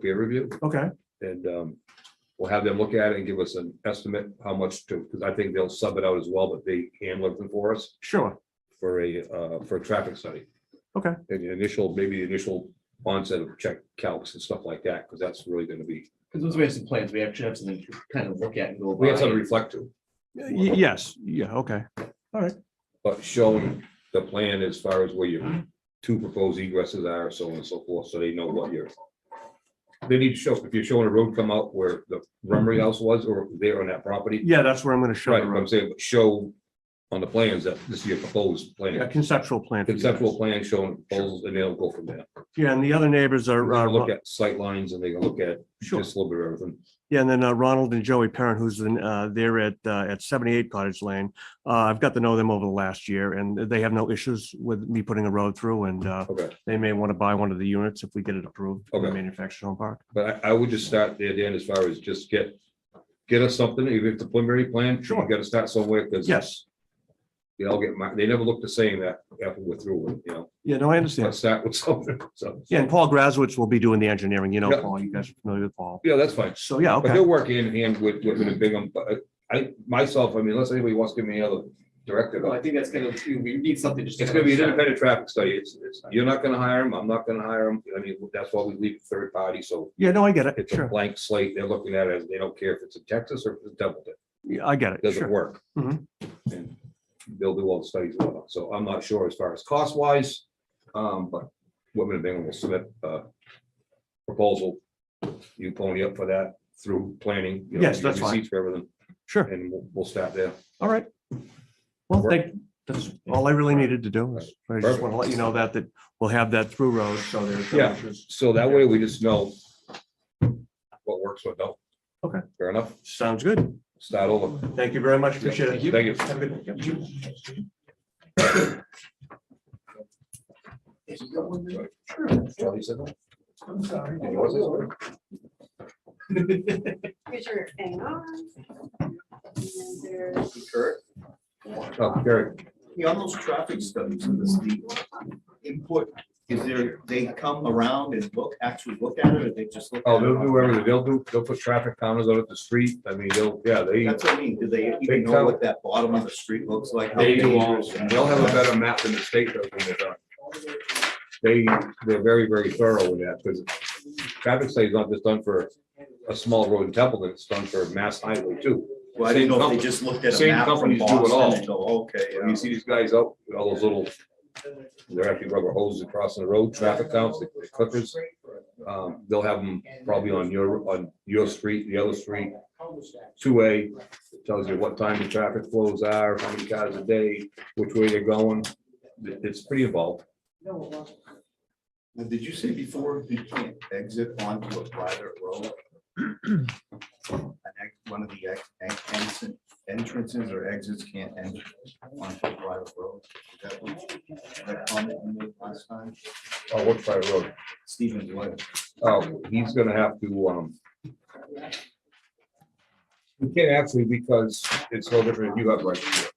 peer review Okay, and um, we'll have them look at it and give us an estimate how much to, because I think they'll sub it out as well, but they handle everything for us sure. for a, uh, for a traffic study. Okay. And the initial, maybe the initial onset of check calcs and stuff like that, because that's really going to be, Because once we have some plans, we actually have something to kind of look at and go. we have by. something to reflect to. Y- Yes, yeah, okay. But showing the plan as far as where your two proposed egresses are, so on and so forth, so they know what you're. They need to show, if you're showing a road come out where the Rummery House was or there on that property, Yeah, that's where I'm gonna show right, the but I'm road. saying, but show on the plans that this is your proposed A plan, conceptual plan. for you guys. conceptual plan showing proposals, and they'll go from there. Yeah, and the other neighbors are, They'll uh, Look at sight lines and they can look at sure. just a little bit of everything. Yeah, and then uh, Ronald and Joey Parent, who's in, uh, they're at, uh, at seventy-eight Cottage Lane. Uh, I've got to know them over the last year and they have no issues with me putting a road through and, uh, Okay, they may want to buy one of the units if we get it approved. in the Okay. Manufactured home park. but I, I would just start there, Dan, as far as just get, get us something, even if it's a preliminary plan, sure, Sure. you gotta start somewhere, because. Yes, they all get, mar- they never look the same that after we're through with, you know, yeah, no, I understand. let's start with something, so. Yeah, and Paul Grazowitz will be doing the engineering, you know, Yeah. Paul, you guys are familiar with Paul. Yeah, that's fine, So, yeah, but okay. they'll work in hand with, with the Bingham, but I, myself, I mean, unless anybody wants to give me another directive. Well, I think that's kind of, we need something just. to It's gonna be an kind of- independent traffic study, it's, it's, you're not gonna hire them, I'm not gonna hire them, I mean, that's why we leave it third party, so. Yeah, no, I get it. It's a Sure. blank slate, they're looking at it, as they don't care if it's in Texas or if it's Templeton, Yeah, I get it it. doesn't Sure. work. Mhm. And They'll do all the studies, and whatnot. so I'm not sure as far as cost wise, um, but Women of England will submit a proposal. You pony up for that through planning. you know, Yes, that's your fine. receipts For everything, Sure. and we'll, we'll start there. All right. Well, Work. thank, that's all I really needed to do. is- I just Perfect. want to let you know that, that we'll have that through road. So there's. no Yeah. issues. So that way we just know what works, what don't. Okay. Fair enough, Sounds good. start over. Thank you very much. Appreciate it. Thank Thank you. Have a good one. Yep. Charlie said that? I'm sorry. And yours is? Here's your hang on. And then there's- Kurt, Oh, Gary, Yeah, on those traffic studies for this, the input, is there, they come around and look, actually look at it, or they just look? oh, at it they'll on- do everything, they'll do, they'll put traffic counters out at the street, I mean, they'll, yeah, they. That's what I mean, do they They even come- know what that bottom of the street looks like? They do all- They'll have a better map than the state does when they're done. They, they're very, very thorough with that, because traffic study is not just done for a small road in Templeton, it's done for a mass highway too. Well, I didn't know if they just looked at a Same map from companies do it all. Boston and go, okay, When You yeah. see these guys out with all those little, they're actually rubber hoses crossing the road, traffic counts, the the clippers. Um, they'll have them probably on your, on your street, the other street, two-way, tells you what time the traffic flows are, how many cars a day, which way they're going. It- It's pretty involved. Now, Did you say before, you can't exit onto a private road? An ex- One of the ex- ex- exit- entrances or exits can't enter onto a private road? Is that what- That comment you made last time, Oh, what's by road? Stephen Dwyer. Oh, he's gonna have to, um. He can't actually because it's no different if you have right.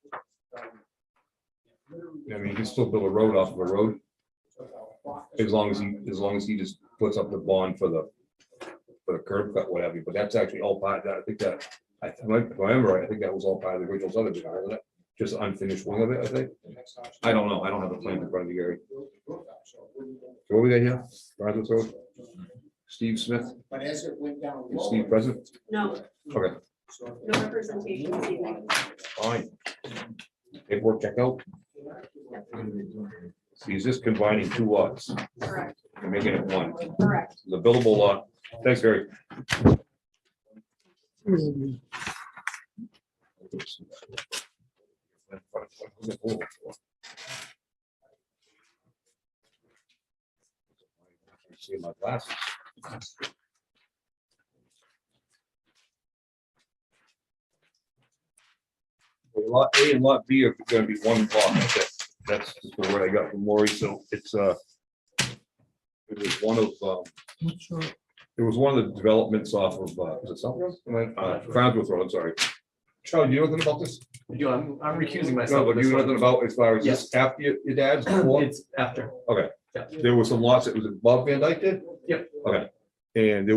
I mean, he can still build a road off of a road. As long as he, as long as he just puts up the bond for the, for the curb cut, whatever, but that's actually all part of that, I think that. I, if I remember, right, I think that was all part of the original subdivision, wasn't it? Just unfinished wing of it, I think. I don't know, I don't have the plan in front of me, Gary. So what we got here? Rogers Road? Steve Smith, But as it went down. is Steve present? No, Okay, no representation this evening. fine. Paperwork check out. See, he's just combining two lots Correct, and making it one. correct. The billable lot. Thanks, Gary. See my glasses. Lot A and Lot B are gonna be one lot. That's, that's just the word I got from Lori, so it's, uh, it was one of, um, it was one of the developments off of, uh, was it Southwest? Uh, Crowdsworth Road, I'm sorry. Charlie, do you know anything about this? You know, I'm, I'm recusing No, myself. but this you know one. nothing about as far as this after your, your dad's? before? It's after. There was some lots, that was above Van Dyke did? Yep. Okay. And there